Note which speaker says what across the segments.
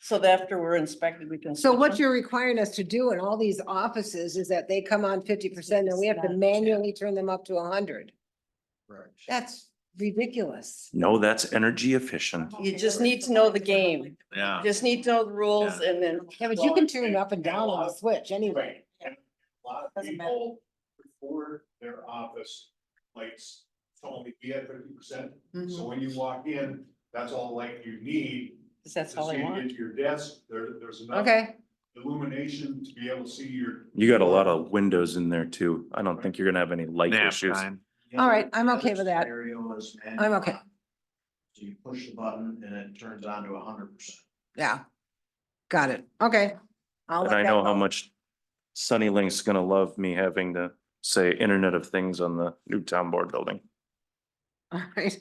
Speaker 1: So that after we're inspected, we can.
Speaker 2: So
Speaker 1: switch
Speaker 2: what
Speaker 1: them?
Speaker 2: you're requiring us to do in all these offices is that they come on fifty percent and we have to
Speaker 3: 50%,
Speaker 2: manually turn them up to hundred. That's ridiculous.
Speaker 4: No, that's energy efficient.
Speaker 1: You just need to know the game.
Speaker 5: Yeah.
Speaker 1: Just need to know the rules and then.
Speaker 2: Yeah, but you can turn it up and down on the switch anyway.
Speaker 6: And A lot of
Speaker 2: Doesn't matter.
Speaker 6: people before their office lights told me we had fifty percent.
Speaker 2: Mm-hmm.
Speaker 6: So when you walk in, that's all light you need.
Speaker 1: Cause that's
Speaker 6: to
Speaker 1: all
Speaker 6: see
Speaker 1: I
Speaker 6: to
Speaker 1: want.
Speaker 6: Get to your desk, there, there's enough
Speaker 2: Okay,
Speaker 6: illumination to be able to see your.
Speaker 4: You got a lot of windows in there too. I don't think you're gonna have any light
Speaker 5: Nap
Speaker 4: issues.
Speaker 5: time.
Speaker 2: All right, I'm okay with that.
Speaker 7: Scenario is
Speaker 2: I'm okay.
Speaker 7: uh, So you push the button and it turns on to hundred percent.
Speaker 2: yeah. Got it. Okay. I'll
Speaker 4: And
Speaker 2: let
Speaker 4: I
Speaker 2: that
Speaker 4: know how
Speaker 2: go.
Speaker 4: much Sunny Link's gonna love me having to say Internet of Things on the new town board building.
Speaker 2: All right.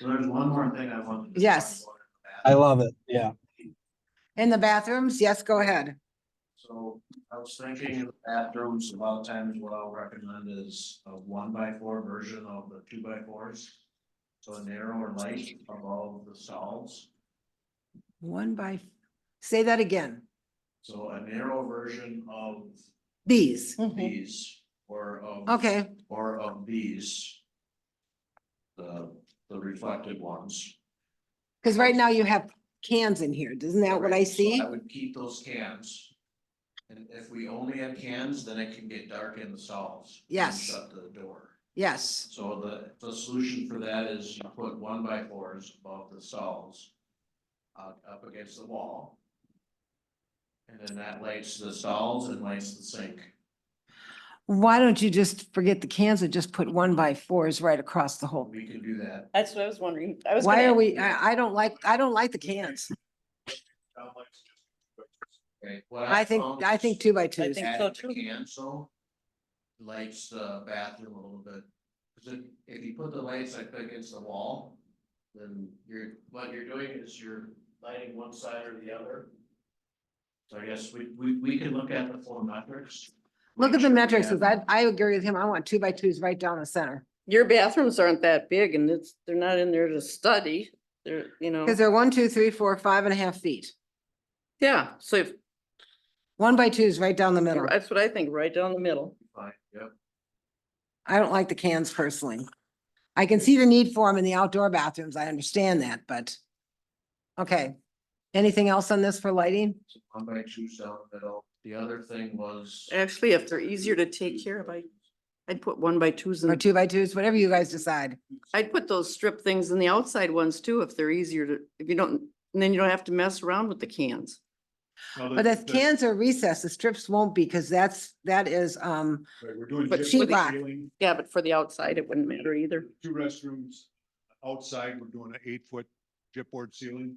Speaker 7: So there's one more thing I wanted. to
Speaker 2: Yes.
Speaker 7: talk about.
Speaker 8: I love it, yeah.
Speaker 2: In the bathrooms, yes, go ahead.
Speaker 7: So I was thinking of the bathrooms, a lot of times what I'll recommend is a one by four version of the two by fours. So a narrower light of all of the stalls.
Speaker 2: One by, say that again.
Speaker 7: So a narrow version of
Speaker 2: These.
Speaker 1: Mhm.
Speaker 7: these or of.
Speaker 2: Okay,
Speaker 7: Or of these. The, the reflected ones.
Speaker 2: because right now you have cans in here. Isn't that what I
Speaker 7: Correct. So
Speaker 2: see?
Speaker 7: I would keep those cans. And if we only have cans, then it can get dark in the stalls. and
Speaker 2: Yes.
Speaker 7: Shut the door.
Speaker 2: Yes.
Speaker 7: So the, the solution for that is you put one by fours above the stalls. Uh, up against the wall. And then that lights the stalls and lights the sink.
Speaker 2: Why don't you just forget the cans and just put one by fours right across the whole?
Speaker 7: We can do that.
Speaker 1: That's what I was wondering. I was.
Speaker 2: Why
Speaker 1: gonna-
Speaker 2: are we, I, I don't like, I don't like the cans.
Speaker 6: down lights, just-
Speaker 7: Okay, what
Speaker 2: I think,
Speaker 7: found
Speaker 2: I
Speaker 7: is-
Speaker 2: think two by
Speaker 1: I
Speaker 2: twos.
Speaker 1: think
Speaker 7: add
Speaker 1: so
Speaker 7: the
Speaker 1: too.
Speaker 7: Cancel lights the bathroom a little bit. Cause if, if you put the lights like against the wall, then you're, what you're doing is you're lighting one side or the other. So I guess we, we, we can look at the full metrics.
Speaker 2: Look at
Speaker 7: make
Speaker 2: the
Speaker 7: sure we
Speaker 2: metrics, 'cause
Speaker 7: have-
Speaker 2: I, I agree with him. I want two by twos right down the center.
Speaker 1: Your bathrooms aren't that big and it's, they're not in there to study. They're, you know,
Speaker 2: Because they're one, two, three, four, five and a half feet.
Speaker 1: yeah, so if-
Speaker 2: One by twos right down the middle.
Speaker 1: that's what I think, right down the middle.
Speaker 7: Fine, Yep,
Speaker 2: I don't like the cans personally. I can see the need for them in the outdoor bathrooms. I understand that, but. Okay, anything else on this for lighting?
Speaker 7: so one by two cell middle. The other thing was.
Speaker 1: Actually, if they're easier to take care of, I, I'd put one by twos
Speaker 2: Or
Speaker 1: and
Speaker 2: two by twos, whatever you guys decide.
Speaker 1: I'd put those strip things in the outside ones too, if they're easier to, if you don't, and then you don't have to mess around with the cans.
Speaker 6: Now, the-
Speaker 2: But the
Speaker 6: the-
Speaker 2: cans are recessed, the strips won't be, because that's, that is, um,
Speaker 6: right, We're doing.
Speaker 1: But
Speaker 6: gypsum
Speaker 2: sheet rock.
Speaker 6: ceiling,
Speaker 1: Yeah, but for the outside, it wouldn't matter either.
Speaker 6: Two restrooms outside, we're doing an eight foot chipboard ceiling,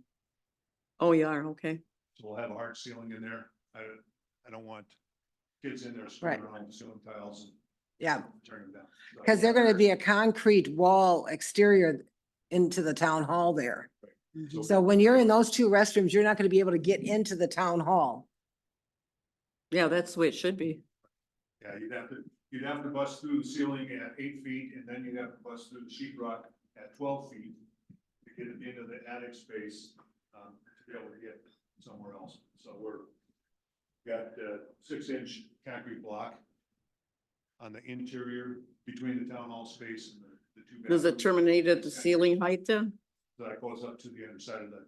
Speaker 1: Oh, you are, okay.
Speaker 6: so we'll have a hard ceiling in there. I, I don't want kids in there screwing
Speaker 2: Right.
Speaker 6: around with ceiling tiles
Speaker 2: yeah,
Speaker 6: and turning them down. So-
Speaker 2: because they're gonna be a concrete wall exterior into the town hall there. So when you're in those two restrooms, you're not gonna be able to get into the town hall.
Speaker 1: Yeah, that's the way it should be.
Speaker 6: Yeah, you'd have to, you'd have to bust through the ceiling at eight feet, and then you'd have to bust through the sheet rock at twelve feet to get it into the attic space, um, to be able to get somewhere else. So we're, got, uh, six inch concrete block on the interior between the town hall space and the, the two.
Speaker 1: Does it
Speaker 6: bathrooms.
Speaker 1: terminate at the ceiling height then?
Speaker 6: That goes up to the other side of the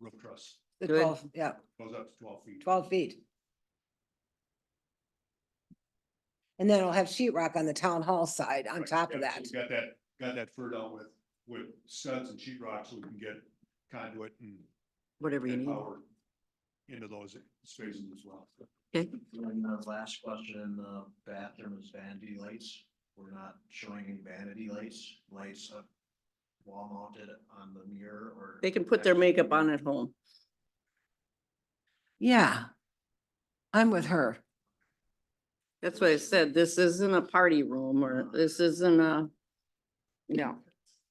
Speaker 6: roof truss,
Speaker 2: The
Speaker 1: Good.
Speaker 2: twelve, yeah,
Speaker 6: goes up to twelve feet.
Speaker 2: twelve feet. And then it'll have sheetrock on the town hall side on
Speaker 6: Right,
Speaker 2: top of
Speaker 6: yeah, so
Speaker 2: that.
Speaker 6: we Got that, got that furred out with, with studs and sheet rock so we can get conduit and
Speaker 1: Whatever you
Speaker 6: and
Speaker 1: need.
Speaker 6: power into those spaces as well.
Speaker 1: Okay.
Speaker 7: And the last question in the bathroom is vanity lights. We're not showing any vanity lights, lights up wall mounted on the mirror or.
Speaker 1: They can put their makeup on at home.
Speaker 2: Yeah. I'm with her.
Speaker 1: That's what I said. This isn't a party room
Speaker 6: Uh-huh.
Speaker 1: or this isn't a, no.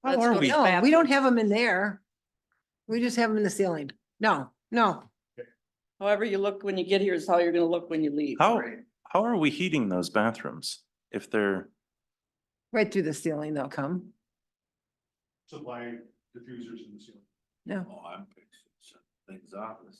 Speaker 1: Let's
Speaker 4: are
Speaker 1: go to
Speaker 4: we?
Speaker 1: the
Speaker 2: No, we don't
Speaker 1: bathroom.
Speaker 2: have them in there. We just have them in the ceiling. No, no.
Speaker 1: However you look when you get here is how you're gonna look when you leave.
Speaker 4: How,
Speaker 7: Right.
Speaker 4: how are we heating those bathrooms if they're?
Speaker 2: Right through the ceiling they'll come.
Speaker 6: Supply diffusers in the ceiling.
Speaker 2: No.
Speaker 7: Oh, I'm fixing things off this